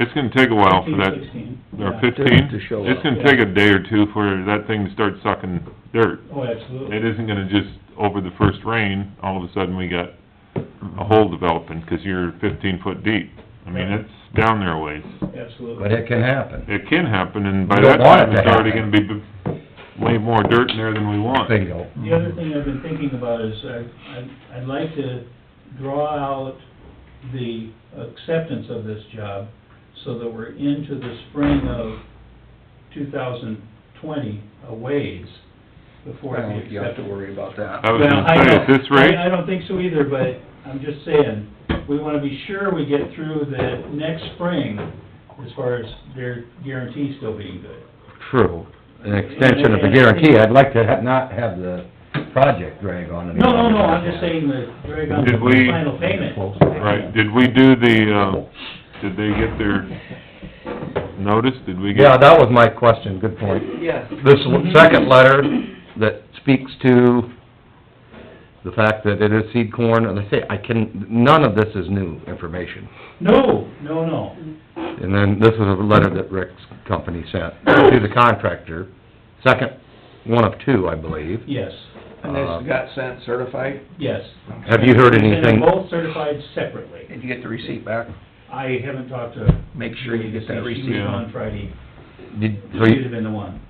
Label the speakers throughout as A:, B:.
A: It's gonna take a while for that,
B: Fifteen, sixteen.
A: or
B: Yeah.
A: fifteen?
C: To show
A: It's
C: up.
A: gonna take a day or two for that thing to start sucking dirt.
B: Oh, absolutely.
A: It isn't gonna just, over the first rain, all of a sudden we got a hole developing, 'cause you're fifteen foot deep. I mean, it's down there a ways.
B: Absolutely.
C: But it can happen.
A: It can happen, and by
C: We
A: that
C: don't want
A: time,
C: it to
A: it's already gonna
C: happen.
A: be b- way more dirt in there than we want.
C: Fatal.
B: The other thing I've been thinking about is I, I'd- I'd like to draw out the acceptance of this job so that we're into the spring of two thousand twenty a ways before
C: Well,
B: we
C: you have
B: accept
C: to
B: it.
C: worry about
A: I
C: that.
A: was
B: Well, I
A: gonna say,
B: don't-
A: at this rate,
B: I, I don't think so either, but I'm just saying, we wanna be sure we get through the next spring as far as their guarantee still being good.
C: True, an extension of the guarantee, I'd like to ha- not have the project drag on it.
B: No, no, no, I'm just saying that Greg, on the
A: Did we-
B: final payment.
A: right, did we do the, um, did they get their notice? Did we
C: Yeah,
A: get,
C: that was my question, good point.
D: Yes.
C: This
B: Mm-hmm.
C: l- second letter that speaks to the fact that it is seed corn, and I say, I can, none of this is new information.
B: No, no, no.
C: And then this is a letter that Rick's company sent to the contractor, second, one of two, I believe.
B: Yes,
D: And this got sent certified?
B: yes.
C: Um, Have you heard
B: And they're
C: anything?
B: both certified separately.
D: Did you get the receipt back?
B: I haven't talked to.
D: Make sure you get that
B: She was
D: receipt.
A: Yeah.
B: on Friday.
C: Did, so
B: She'd
C: you,
B: have been the one.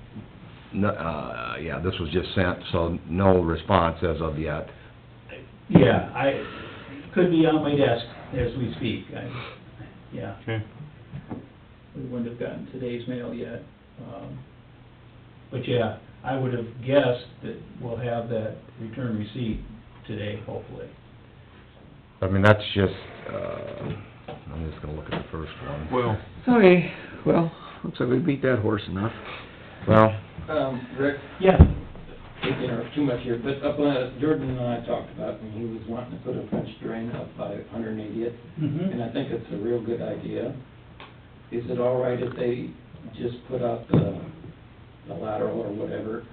C: no, uh, yeah, this was just sent, so no response as of yet.
B: Yeah, I, could be on my desk as we speak. I, yeah,
A: okay,
B: we wouldn't have gotten today's mail yet. Um, But yeah, I would have guessed that we'll have that return receipt today, hopefully.
C: I mean, that's just, uh, I'm just gonna look at the first one.
A: well,
D: Okay, well, looks like we beat that horse enough.
C: Well,
E: Um, Rick,
B: Yeah,
E: didn't interrupt too much here, but up, uh, Jordan and I talked about, and he was wanting to put a French drain up by 180th,
B: mhm.
E: and I think it's a real good idea. Is it all right if they just put out the, the lateral or whatever,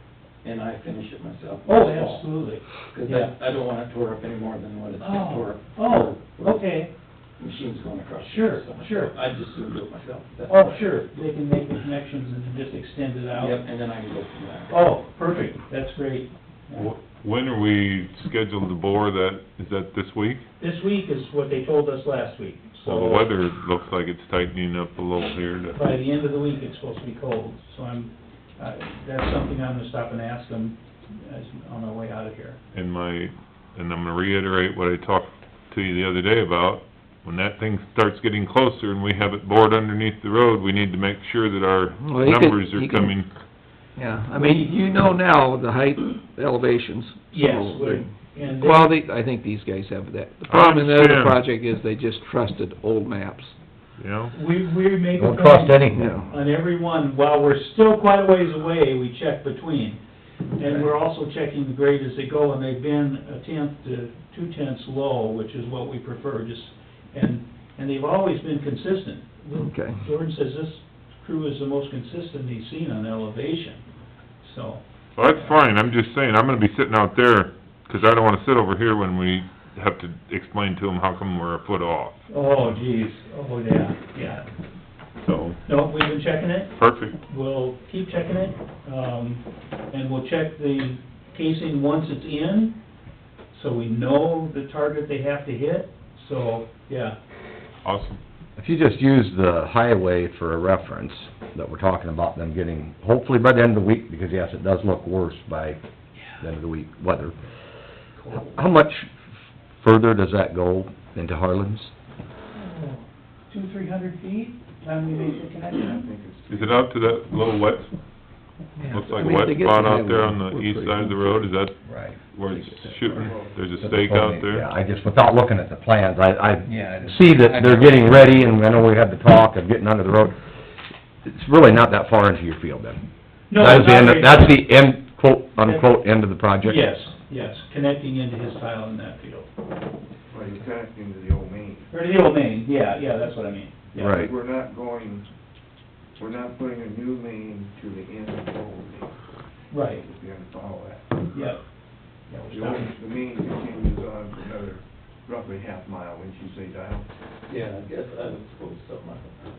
E: and I finish it myself?
B: Oh, absolutely.
E: Because I, I don't want it tore up any more than what it's been tore
B: Oh,
E: up.
B: oh,
E: Where
B: okay.
E: Machines going across. it,
B: Sure,
E: so
B: sure.
E: I just would do it myself. That's
B: Oh,
E: fine.
B: sure, they can make the connections and just extend it
E: Yep,
B: out.
E: and then I can go from there.
B: Oh, perfect, that's great.
A: wh- when are we scheduled to bore that? Is that this week?
B: This week is what they told us last week, so...
A: Well, the weather looks like it's tightening up a little here to...
B: By the end of the week, it's supposed to be cold, so I'm, uh, that's something I'm gonna stop and ask them as, on our way out of here.
A: and my, and I'm gonna reiterate what I talked to you the other day about, when that thing starts getting closer and we have it bored underneath the road, we need to make sure that our
D: Well, you could-
A: numbers are
D: you could-
A: coming.
D: Yeah, I mean, you know now the height elevations.
B: Yes,
D: So,
B: we're- and... they-
D: Well, they, I think these guys have that. The problem in the
A: understand.
D: other project is they just trusted old maps.
A: You know,
B: We, we make a
C: don't trust
B: plan
C: anything.
B: on every one, while we're still quite a ways away, we check between. And we're also checking the grade as they go, and they've been a tenth to two tenths low, which is what we prefer, just, and, and they've always been consistent.
D: Okay.
B: Jordan says this crew is the most consistent he's seen on elevation, so,
A: well, that's fine, I'm just saying, I'm gonna be sitting out there, 'cause I don't wanna sit over here when we have to explain to them how come we're a foot off,
B: oh geez, oh yeah, yeah.
A: so,
B: No, we've been checking it,
A: perfect.
B: we'll keep checking it, um, and we'll check the casing once it's in, so we know the target they have to hit, so, yeah.
A: Awesome.
C: If you just use the highway for a reference, that we're talking about them getting, hopefully by the end of the week, because yes, it does look worse by the end of the week, weather. How much further does that go into Harlan's?
B: Two, three hundred feet, time we make the connection?
A: Is it out to that little wet,
D: Yeah.
A: looks like
D: I
A: a
D: mean,
A: wet
D: they get
A: spot
D: the
A: out there
D: highway,
A: on the
D: we're
A: east
D: pretty-
A: side of the road, is that
C: Right.
A: where it's shooting? There's a stake out there?
C: Yeah, I just, without looking at the plans, I,
F: Yeah, I
C: I
F: just-
C: see that they're getting ready, and I know we had the talk of getting under the road. It's really not that far into your field then.
B: No,
C: That is the
B: not
C: end of-
B: very-
C: That's the end, quote, unquote, end of the project?
B: Yes, yes, connecting into his tile in that field,
F: Well, you're connecting to the old main.
B: or the old main, yeah, yeah, that's what I mean. yeah.
C: Right.
F: We're not going, we're not putting a new main to the end of the old main,
B: Right,
F: if you're gonna follow that.
B: yep. Yeah, we're
F: The old,
B: stopping.
F: the main continues on for another roughly half mile, wouldn't you say, Dial?
E: Yeah, I guess I would suppose so, Michael.